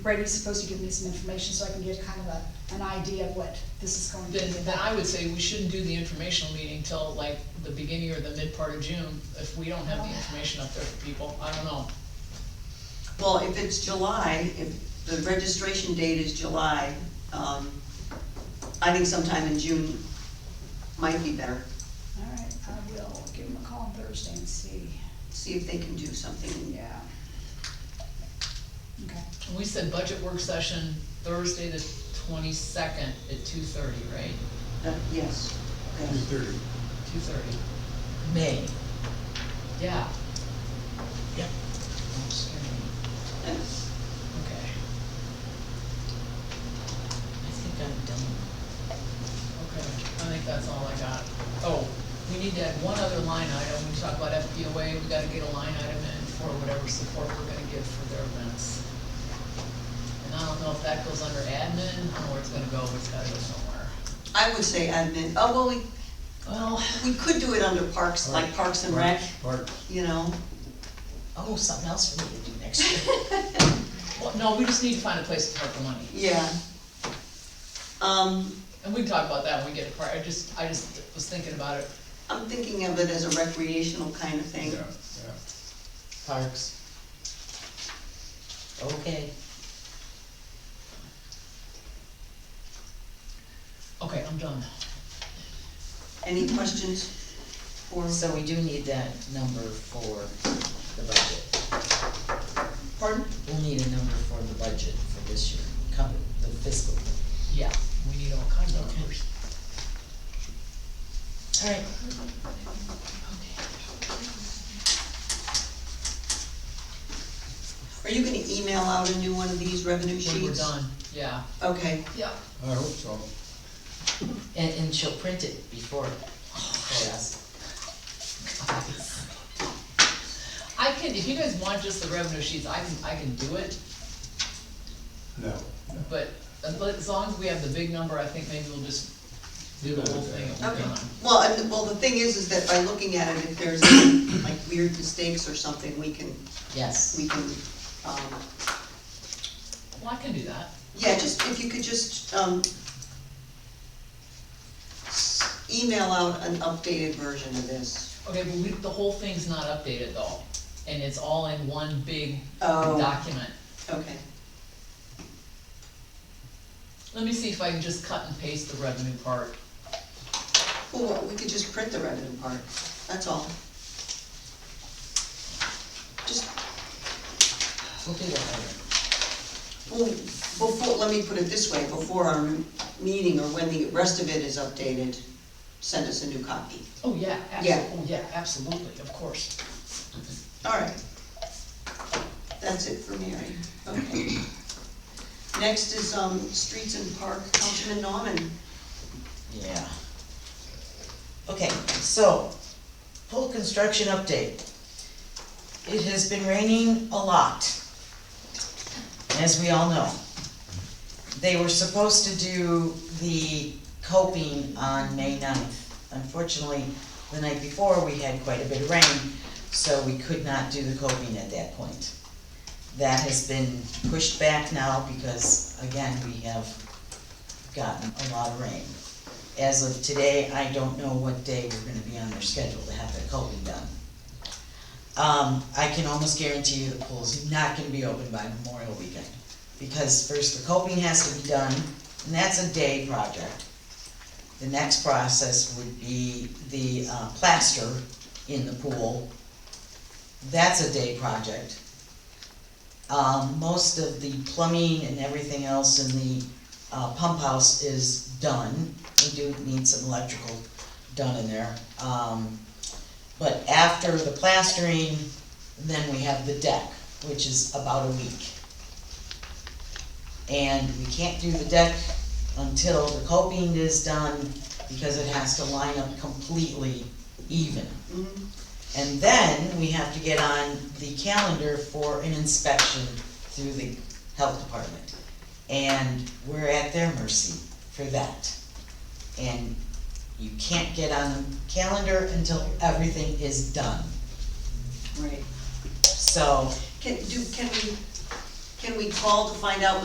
Brady's supposed to give me some information so I can get kind of a, an idea of what this is going to be Then, then about. I would say we shouldn't do the informational meeting till like the beginning or the mid part of June, if we don't have the information up there for people, I don't know. Well, if it's July, if the registration date is July, um, I think sometime in June might be better. All right, I will give him a call on Thursday and see, See if they can do something. yeah. Okay, And we said budget work session Thursday the twenty-second at two thirty, right? Uh, Yes, Two yes. thirty. Two thirty. May. Yeah. Yep. Don't scare me. Okay. I think I'm done. Okay, I think that's all I got. Oh, we need to add one other line item, we talk about FPOA, we gotta get a line item in for whatever support we're gonna give for their events. And I don't know if that goes under admin, I don't know where it's gonna go, but it's gotta go somewhere. I would say admin, oh, well, we, Well, we could do it under parks, like Parks and Rec, Parks. you know? Oh, something else for me to do next year. well, no, we just need to find a place to park the money. Yeah. Um, And we can talk about that when we get a part, I just, I just was thinking about it. I'm thinking of it as a recreational kind of Yeah, thing. yeah. Parks. Okay, Okay, I'm done. Any questions for, so we do need that number for the budget. pardon? We'll need a number for the budget for this year, coming, the fiscal. Yeah, we need all kinds of numbers. Alright. Are you gonna email out a new one of these revenue sheets? When we're done, yeah. Okay, Yeah. I hope so. And, and she'll print it before, for us. I can, if you guys want just the revenue sheets, I can, I can do it, No, no. but as lo- as long as we have the big number, I think maybe we'll just do the whole thing at one okay. time. Well, and, well, the thing is, is that by looking at it, if there's like weird mistakes or something, we can, Yes, we can, um, Well, I can do that. yeah, just, if you could just, um, s- email out an updated version of this. Okay, but we, the whole thing's not updated though, and it's all in one big Oh. document. Okay, Let me see if I can just cut and paste the revenue part. well, we could just print the revenue part, that's all. Just we'll do that Well, later. before, let me put it this way, before our meeting or when the rest of it is updated, send us a new copy. Oh, yeah, Yeah. absolutely, oh, yeah, absolutely, of course. All right. That's it for Mary, okay. Next is, um, Streets and Park, Councilman Nauman. Yeah. Okay, so, pool construction update. It has been raining a lot, as we all know. They were supposed to do the coping on May 9th. Unfortunately, the night before, we had quite a bit of rain, so we could not do the coping at that point. That has been pushed back now because, again, we have gotten a lot of rain. As of today, I don't know what day we're gonna be on their schedule to have the coping done. Um, I can almost guarantee you the pool's not gonna be open by Memorial Weekend, because first the coping has to be done, and that's a day project. The next process would be the, uh, plaster in the pool. That's a day project. Um, most of the plumbing and everything else in the, uh, pump house is done. We do need some electrical done in there. Um, but after the plastering, then we have the deck, which is about a week. And we can't do the deck until the coping is done, because it has to line up completely even. And then we have to get on the calendar for an inspection through the health department. And we're at their mercy for that. And you can't get on the calendar until everything is done. Right. So, Can, do, can we, can can we call to find out